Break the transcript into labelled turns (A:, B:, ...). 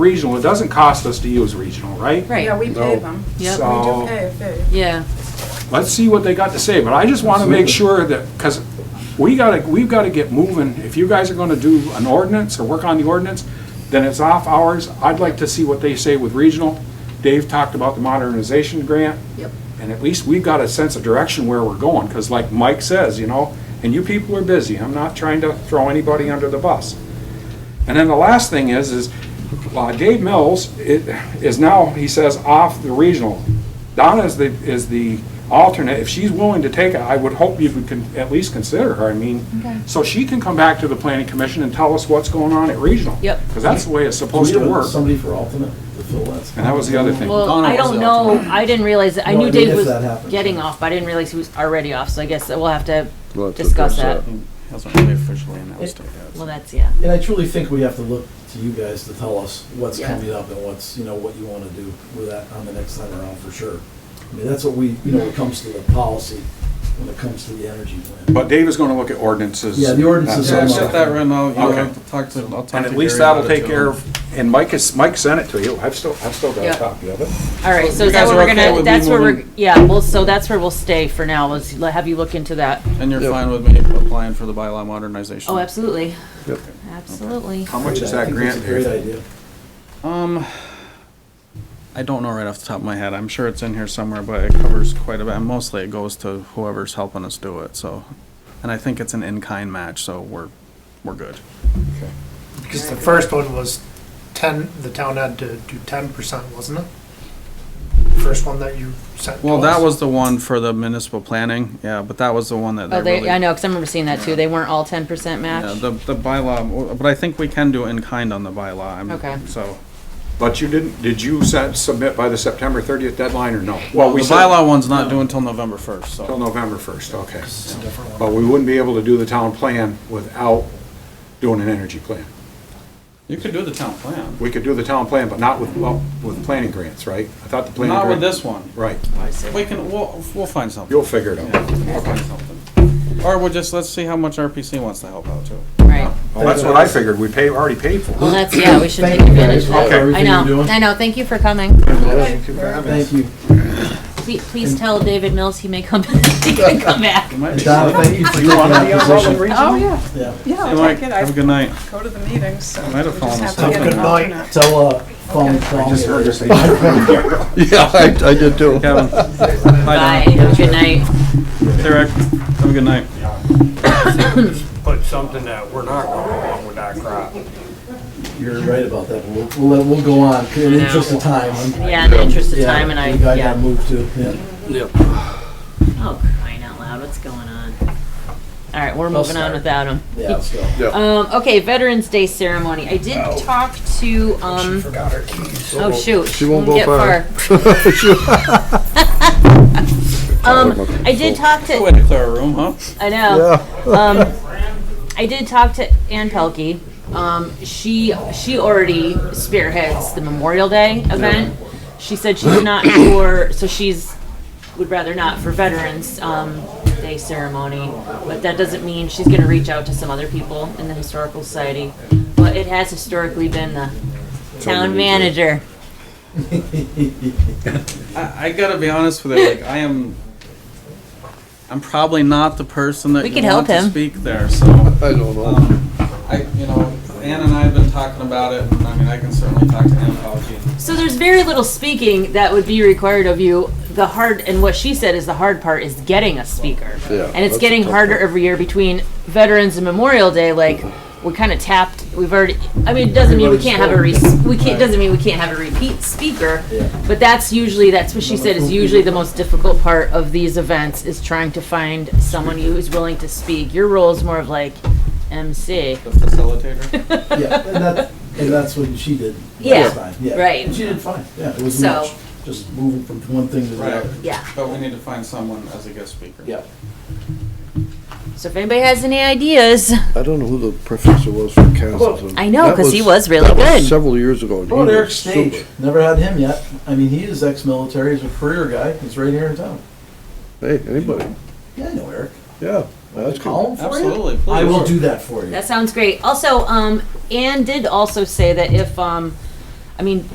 A: regional, it doesn't cost us to use regional, right?
B: Yeah,
C: Right,
B: we pave them.
C: Yep.
B: We do
A: So-
D: Oh.
B: pave, pave.
C: yeah.
A: let's see what they got to say, but I just want to make sure that, because we gotta, we've gotta get moving. If you guys are gonna do an ordinance or work on the ordinance, then it's off hours. I'd like to see what they say with regional. Dave talked about the modernization grant.
C: Yep.
A: And at least we've got a sense of direction where we're going, because like Mike says, you know, and you people are busy. I'm not trying to throw anybody under the bus. And then the last thing is, is uh, Dave Mills i- is now, he says, off the regional. Donna is the, is the alternate. If she's willing to take it, I would hope you would con- at least consider her. I mean, so she can come back to the planning commission and tell us what's going on at regional.
C: Yep.
A: Because that's the way it's
E: Do we
A: supposed to
E: have
A: work.
E: Somebody for alternate to fill that spot?
A: And that was the other thing.
C: Well,
E: Donna
C: I
E: was
C: don't
E: out
C: know,
E: tonight.
C: I didn't realize, I
E: No, I
C: knew
E: mean,
C: Dave
E: if
C: was
E: that happens.
C: getting off, but I didn't realize he was already off, so I guess that we'll have to
F: We'll have to
C: discuss that.
F: address
D: That's not really officially announced, I guess.
C: Well, that's, yeah.
E: And I truly think we have to look to you guys to tell us what's
C: Yeah.
E: coming up and what's, you know, what you want to do with that on the next time around for sure. I mean, that's what we, you know, when it comes to the policy, when it comes to the energy plan.
A: But Dave is going to look at ordinances.
E: Yeah, the ordinances
A: That's-
E: are-
D: Yeah, shut that right now, you
A: Okay.
D: have to talk to, I'll talk to
A: And at least
D: Gary
A: that'll
D: about it
A: take
D: too.
A: care of, and Mike is, Mike sent it to you. I've still, I've still got
C: Yeah.
A: a copy of it.
C: All right,
D: So
C: so
D: you
C: is that
D: guys
C: where
D: are
C: we're
D: okay
C: gonna,
D: with me
C: that's where we're,
D: moving-
C: yeah, well, so that's where we'll stay for now, is let- have you look into that.
D: And you're
F: Yep.
D: fine with me applying for the bylaw modernization?
C: Oh, absolutely,
F: Yep.
C: absolutely.
A: How much is
E: I
A: that
E: think
A: grant?
E: It's a great
A: Dave?
E: idea.
D: Um, I don't know right off the top of my head. I'm sure it's in here somewhere, but it covers quite a bit. And Mostly it goes to whoever's helping us do it, so. And I think it's an in-kind match, so we're, we're good.
G: Because the first one was ten, the town had to do ten percent, wasn't it? First one that you sent to
D: Well, that
G: us.
D: was the one for the municipal planning, yeah, but that was the one that they
C: Oh,
D: really.
C: they, I know, because I remember seeing that too, they weren't all ten percent
D: Yeah,
C: match.
D: the, the bylaw, but I think we can do in-kind on the bylaw. I'm-
C: Okay.
D: So.
A: But you didn't, did you set- submit by the September 30th deadline or no?
D: Well,
A: Well,
D: the
A: we said
D: bylaw one's not due until November first,
A: until
D: so.
A: November 1st, okay.
G: It's a different one.
A: But we wouldn't be able to do the town plan without doing an energy plan.
D: You could do the town plan.
A: We could do the town plan, but not with, well, with planning grants, right? I thought the planning.
D: Not with
A: grant-
D: this one.
A: Right,
D: We can, we'll, we'll find something.
A: you'll figure it
D: Yeah,
A: out.
D: we'll find something. Or we'll just, let's see how much RPC wants to help out too.
C: Right,
A: Well, Oh, that's what I figured, we pay, already paid for
C: well,
A: it.
C: that's, yeah, we should
E: Thank
C: take
E: you
C: advantage
E: guys
C: of
E: for
C: that. I
E: everything you're
C: know,
E: doing.
C: I know, thank you for coming.
E: Thank you.
C: Please, please tell David Mills he may come, he can come back.
D: It might
E: And
D: be-
E: Donna, thank you for taking that position.
B: Oh, yeah,
E: Yeah.
B: yeah,
D: Hey,
B: I'll
D: Mike,
B: take it.
D: have a
B: I
D: good night.
B: go to the meetings, so we
D: might
B: just
D: have fallen
B: have to
D: asleep.
B: get
E: Good
B: an
E: night.
B: alternate.
E: Tell, uh, Paul and Paul.
A: Just heard her say-
F: Yeah, I, I did too.
D: Kevin. Hi,
C: Bye,
D: Donna.
C: have a good night.
D: Hey, Rick. Have a good night.
H: put something that we're not going along with that crap.
E: You're right about that. We'll, we'll, let- we'll go on in the interest of time. I'm-
C: Yeah, in the interest of
E: yeah,
C: time and I,
E: I got
C: yeah.
E: moved too, yeah.
C: Oh, crying out loud, what's going on? All right, we're moving on
E: start.
C: without him.
E: Yeah, let's go.
C: Um, okay, Veterans Day ceremony. I did talk to, um,
G: Forgot our keys.
C: oh shoot.
F: She won't
C: didn't
F: go far.
C: Um, I did talk
D: Good
C: to,
D: way to clear a room, huh?
C: I know. Um, I did talk to Ann Pelkey. Um, she, she already spearheads the Memorial Day event. She said she's not for, so she's, would rather not for Veterans, um, Day ceremony. But that doesn't mean she's gonna reach out to some other people in the Historical Society. But it has historically been the town manager.
D: I, I gotta be honest with you, like, I am, I'm probably not the person that
C: We
D: you
C: could help
D: want to
C: him.
D: speak there, so.
F: I don't know.
D: um, I, you know, Ann and I have been talking about it, and I mean, I can certainly talk to Ann about it.
C: So there's very little speaking that would be required of you. The hard and what she said is the hard part is getting a speaker.
F: Yeah,
C: and
F: that's
C: it's
F: the
C: getting
F: tough
C: harder
F: part.
C: every year between Veterans and Memorial Day. Like
F: Mm-hmm.
C: we're kind of tapped. We've already. I mean, it doesn't mean we can't have a re- we can't doesn't mean we can't have a repeat speaker.
E: Yeah.
C: But that's usually that's what she said is usually the most difficult part of these events is trying to find someone who is willing to speak. Your role is more of like MC.
D: The facilitator?
E: Yeah, and that, and that's what she did
C: Yeah,
E: last time, yeah.
C: right.
E: And she did fine, yeah, it was
C: So-
E: much, just moving from one thing to the
D: Right.
E: other.
C: Yeah.
D: But we need to find someone as a guest speaker.
E: Yeah.
C: So if anybody has any ideas,
F: I don't know who the professor was from Castleton.
C: I know,
F: That
C: 'cause he was really
F: that was
C: good.
F: Several years ago. and he
E: How about
F: was
E: Eric Stage?
F: super.
E: Never had him yet. I mean, he is ex-military, he's a career guy, he's right here in town.
F: Hey, anybody,
E: Yeah, I know Eric.
F: yeah, that's cool.
E: Call him for you.
D: Absolutely, please.
E: I will do that for you.
C: That sounds great. Also, um, Anne did also say that if, um, I mean,